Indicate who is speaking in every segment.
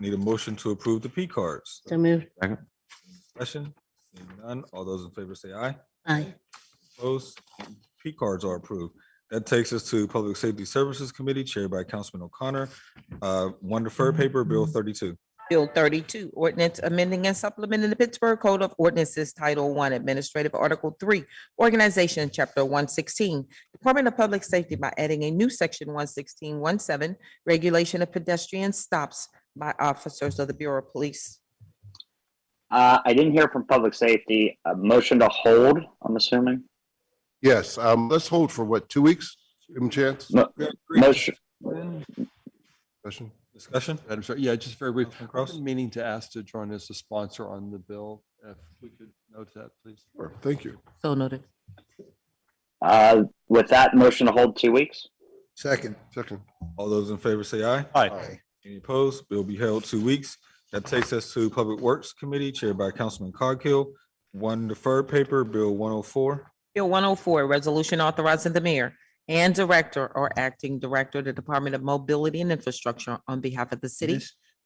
Speaker 1: Need a motion to approve the P cards.
Speaker 2: So moved.
Speaker 1: Discussion? Seeing None. All those in favor say aye.
Speaker 2: Aye.
Speaker 1: Opposed? P cards are approved. That takes us to Public Safety Services Committee chaired by Councilman O'Connor. Uh, One deferred paper, Bill thirty-two.
Speaker 3: Bill thirty-two, ordinance amending and supplementing the Pittsburgh Code of Ordinances Title One Administrative Article Three, Organization, Chapter one sixteen, Department of Public Safety by adding a new section one sixteen one seven, Regulation of Pedestrian Stops by Officers of the Bureau of Police.
Speaker 4: Uh, I didn't hear from public safety. A motion to hold, I'm assuming.
Speaker 5: Yes, um, let's hold for what, two weeks? Give 'em a chance.
Speaker 4: Mo- Motion,
Speaker 5: Discussion.
Speaker 1: Discussion?
Speaker 6: Madam Chair, yeah, just very brief.
Speaker 1: Councilman
Speaker 6: I've
Speaker 1: Kraus?
Speaker 6: been Meaning to ask to join as a sponsor on the bill, if we could note that, please.
Speaker 5: Sure, Thank you.
Speaker 2: So noted.
Speaker 4: uh, with that motion to hold two weeks.
Speaker 7: Second.
Speaker 5: Second.
Speaker 1: All those in favor say aye.
Speaker 7: Aye.
Speaker 1: Any opposed? Bill be held two weeks. That takes us to Public Works Committee chaired by Councilman Coghill. One deferred paper, Bill one oh four.
Speaker 3: Bill one oh four, resolution authorizing the mayor and director or acting director of the Department of Mobility and Infrastructure on behalf of the city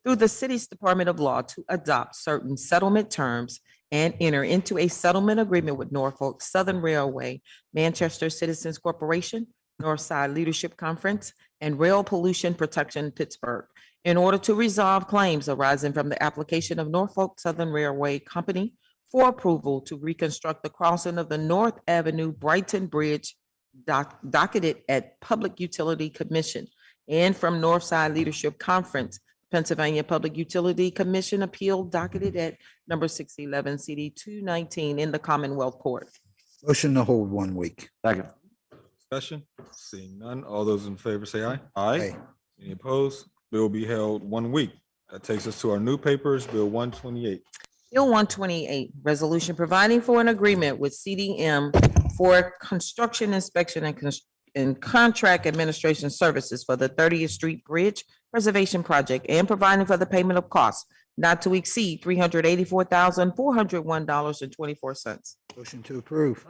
Speaker 3: through the city's Department of Law to adopt certain settlement terms and enter into a settlement agreement with Norfolk Southern Railway, Manchester Citizens Corporation, Northside Leadership Conference, and Rail Pollution Protection Pittsburgh in order to resolve claims arising from the application of Norfolk Southern Railway Company for approval to reconstruct the crossing of the North Avenue Brighton Bridge doc- docketed at Public Utility Commission and from Northside Leadership Conference, Pennsylvania Public Utility Commission Appeal docketed at number six eleven CD two nineteen in the Commonwealth Court.
Speaker 7: Motion to hold one week.
Speaker 6: Second.
Speaker 1: Discussion? Seeing none. All those in favor say aye.
Speaker 7: Aye.
Speaker 1: Any opposed? Bill be held one week. That takes us to our new papers, Bill one twenty-eight.
Speaker 3: Bill one twenty-eight, resolution providing for an agreement with CDM for construction inspection and cons- and contract administration services for the Thirtieth Street Bridge Preservation Project and providing for the payment of costs not to exceed three hundred eighty-four thousand, four hundred one dollars and twenty-four cents.
Speaker 7: Motion to approve.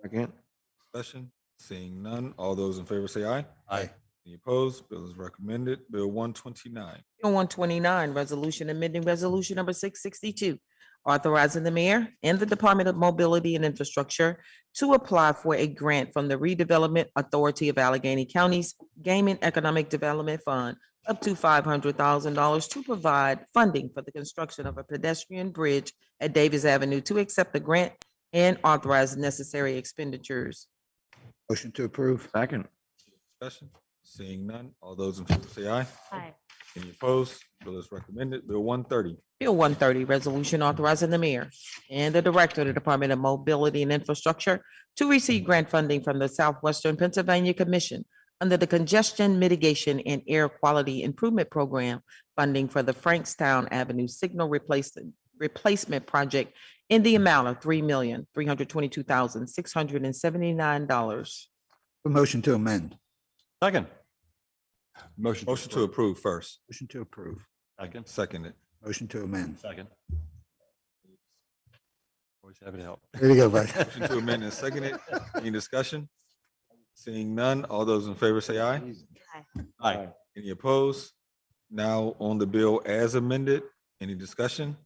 Speaker 6: Second.
Speaker 1: Discussion? Seeing none. All those in favor say aye.
Speaker 6: Aye.
Speaker 1: Any opposed? Bill is recommended. Bill one twenty-nine.
Speaker 3: Bill one twenty-nine, resolution amending resolution number six sixty-two, authorizing the mayor and the Department of Mobility and Infrastructure to apply for a grant from the Redevelopment Authority of Allegheny County's Gaming Economic Development Fund up to five hundred thousand dollars to provide funding for the construction of a pedestrian bridge at Davis Avenue to accept the grant and authorize necessary expenditures.
Speaker 7: Motion to approve.
Speaker 6: Second.
Speaker 1: Discussion? Seeing none. All those in favor say aye. Aye. Any opposed? Bill is recommended. Bill one thirty.
Speaker 3: Bill one thirty, resolution authorizing the mayor and the director of the Department of Mobility and Infrastructure to receive grant funding from the Southwestern Pennsylvania Commission under the Congestion Mitigation and Air Quality Improvement Program, funding for the Frankstown Avenue Signal Replacement, Replacement Project in the amount of three million, three hundred twenty-two thousand, six hundred and seventy-nine dollars.
Speaker 7: A Motion to amend.
Speaker 6: Second. Motion.
Speaker 1: Motion to approve first.
Speaker 7: Motion to approve.
Speaker 6: Second.
Speaker 1: Seconded.
Speaker 7: Motion to amend.
Speaker 6: Second. Always happy to help.
Speaker 7: There you go, Vice.
Speaker 1: Motion to amend and second it. Any discussion? Seeing none, all those in favor say aye.
Speaker 6: Aye.
Speaker 1: Any opposed? Now on the bill as amended, any discussion?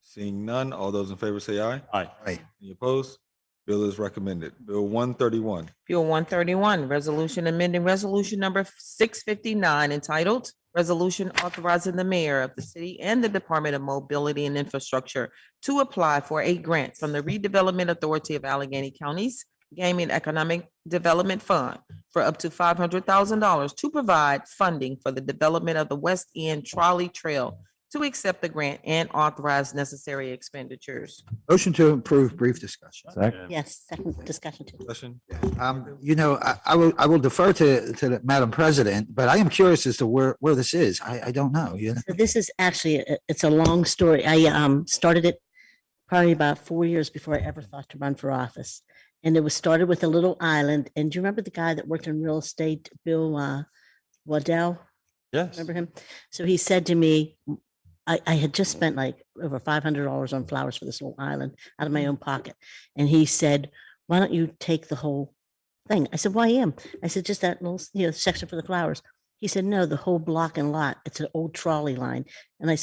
Speaker 1: Seeing none, all those in favor say aye.
Speaker 6: Aye.
Speaker 7: Aye.
Speaker 1: Any opposed? Bill is recommended. Bill one thirty-one.
Speaker 3: Bill one thirty-one, resolution amending resolution number six fifty-nine entitled Resolution authorizing the mayor of the city and the Department of Mobility and Infrastructure to apply for a grant from the Redevelopment Authority of Allegheny County's Gaming Economic Development Fund for up to five hundred thousand dollars to provide funding for the development of the West End Trolley Trail to accept the grant and authorize necessary expenditures.
Speaker 7: Motion to approve. Brief discussion.
Speaker 2: Yes, second discussion too.
Speaker 1: Discussion?
Speaker 7: Um, you know, I, I will, I will defer to, to the Madam President, but I am curious as to where, where this is. I, I don't know, you know?
Speaker 2: So This is actually, a- it's a long story. I um started it probably about four years before I ever thought to run for office. And it was started with a little island. And do you remember the guy that worked in real estate, Bill uh, Waddell?
Speaker 6: Yes.
Speaker 2: Remember him? So he said to me, "M- I, I had just spent like over five hundred dollars on flowers for this little island out of my own pocket. And he said, why don't you take the whole thing? I said, why am? I said, just that little, s- you know, section for the flowers. He said, no, the whole block and lot, it's an old trolley line. And I said,